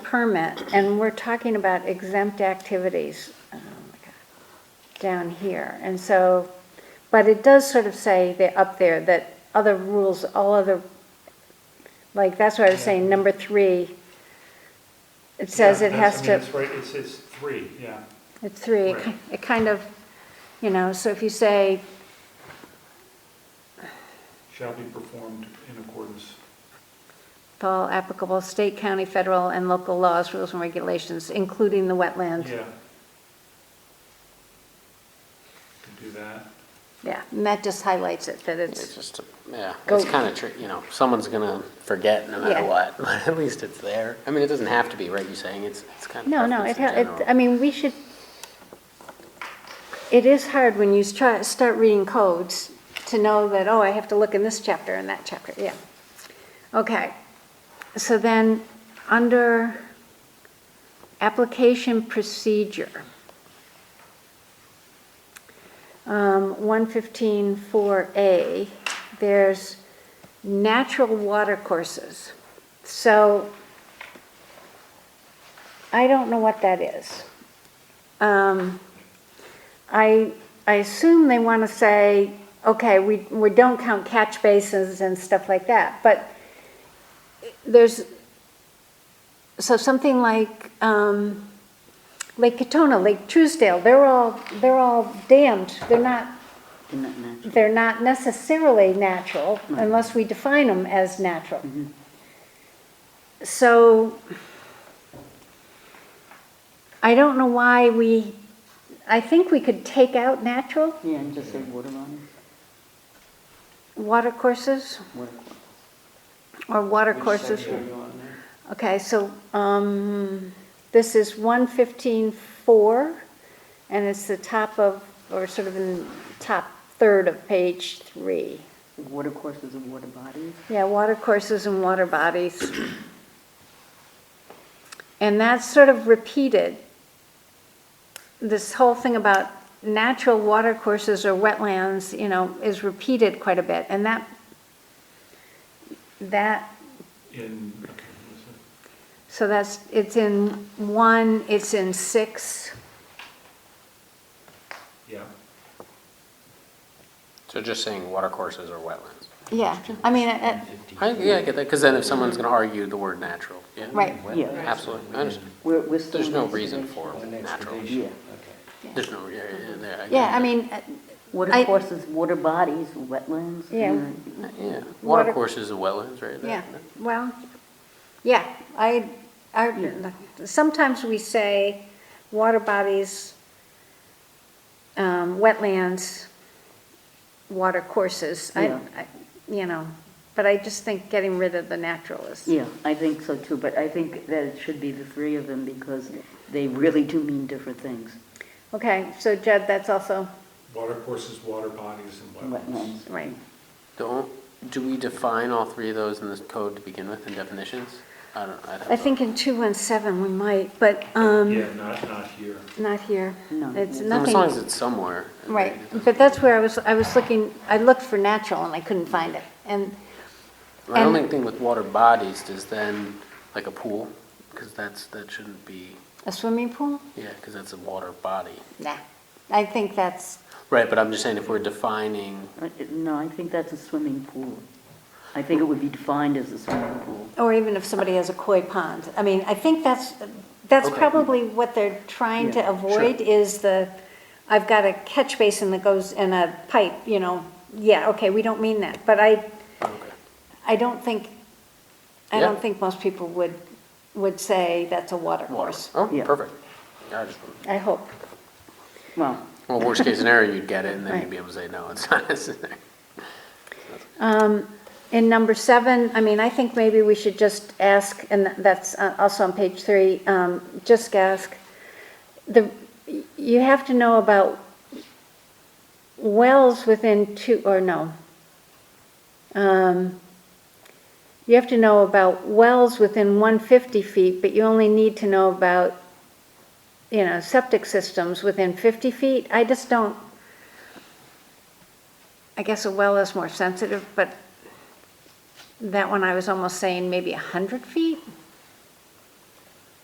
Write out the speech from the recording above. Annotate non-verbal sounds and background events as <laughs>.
permit, and we're talking about exempt activities oh my God, down here. And so, but it does sort of say that up there that other rules, all other, like, that's what I was saying, number three, it says Yeah, it that's- has I mean, to. It's right, it's, it's three, yeah. It's three, it ki- Right. it kind of, you know, so if you say, Shall be performed in accordance. with all applicable state, county, federal, and local laws, rules, and regulations, including the wetlands. Yeah. Can do that. Yeah, and that just highlights it, that It's it's, just, a- yeah, Go- it's kind of, tr- you know, someone's gonna forget no matter Yeah. what, <laughs> but at least it's there. I mean, it doesn't have to be, right, you're saying, it's, it's kind of no, no, preference it, in ha- it, general. I mean, we should, it is hard when you try, start reading codes to know that, oh, I have to look in this chapter and that chapter, yeah. Okay, so then, under application procedure, um, 115-4A, there's natural water courses. So I don't know what that is. Um, I, I assume they want to say, okay, we, we don't count catch basins and stuff like that, but there's, so something like um, Lake Katona, Lake Truesdale, they're all, they're all dammed, they're not, they're not necessarily natural unless we define them as natural. So I don't know why we, I think we could take out natural Yeah, and just say water bodies, water courses water. or water Which courses. section are you on there? Okay, so, um, this is one fifteen four, and it's the top of, or sort of in the top third of page three. Water courses and water bodies? Yeah, water courses and water bodies. And that's sort of repeated. This whole thing about natural water courses or wetlands, you know, is repeated quite a bit, and that, that In, okay, what is it? so that's, it's in one, it's in six, yeah, So just saying water courses or wetlands. yeah, I mean, uh, I, yeah, I get that, because then if someone's gonna argue the word natural, yeah. right, Yeah. Absolutely, I understand. We're, we're still. There's in no this reason section. for natural. Yeah. There's no, yeah, yeah, there, I get yeah, I that. mean, uh, I- Water courses, water bodies, wetlands. Yeah. and- Yeah, Water- water courses and wetlands, right? that- yeah, well, yeah, I, I, sometimes we say water bodies, um, wetlands, water courses, I, Yeah. I, you know, but I just think getting rid of the natural is, Yeah, I think so too, but I think that it should be the three of them because they really do mean different things. okay, so Judd, that's also, water courses, water bodies, and wetlands. Wetlands. right. Don't, do we define all three of those in this code to begin with in definitions? I don't, I don't. I know. think in two one seven we might, but, um. Yeah, not, not here. Not here. No. It's As As long as nothing, it's somewhere. right, it doesn't- but that's where I was, I was looking, I looked for natural and I couldn't find it. And, My And- only thing with water bodies is then, like a pool, because that's, that shouldn't be, a swimming pool? yeah, because that's a water body. Nah, I think that's, Right, but I'm just saying if we're defining, Uh, No, I think that's a swimming pool. I think it would be defined as a swimming pool. or even if somebody has a koi pond, I mean, I think that's, that's Okay. probably what they're trying to Yeah, avoid is the, I've got a catch basin that goes in a pipe, you know, yeah, okay, we don't mean that, but I, okay, I don't think, I Yeah. don't think most people would, would say that's a water water. course. Oh, Yeah. perfect. Yeah, I just- I hope. Well, Well, worst case scenario, you'd get it, and then Right. you'd be able to say, no, it's not <laughs> necessary. In number seven, I mean, I think maybe we should just ask, and that's uh, also on page three, um, just ask, the, you have to know about wells within two, or no. Um, You have to know about wells within 150 feet, but you only need to know about, you know, septic systems within 50 feet. I just don't, I guess a well is more sensitive, but that one I was almost saying maybe 100 feet?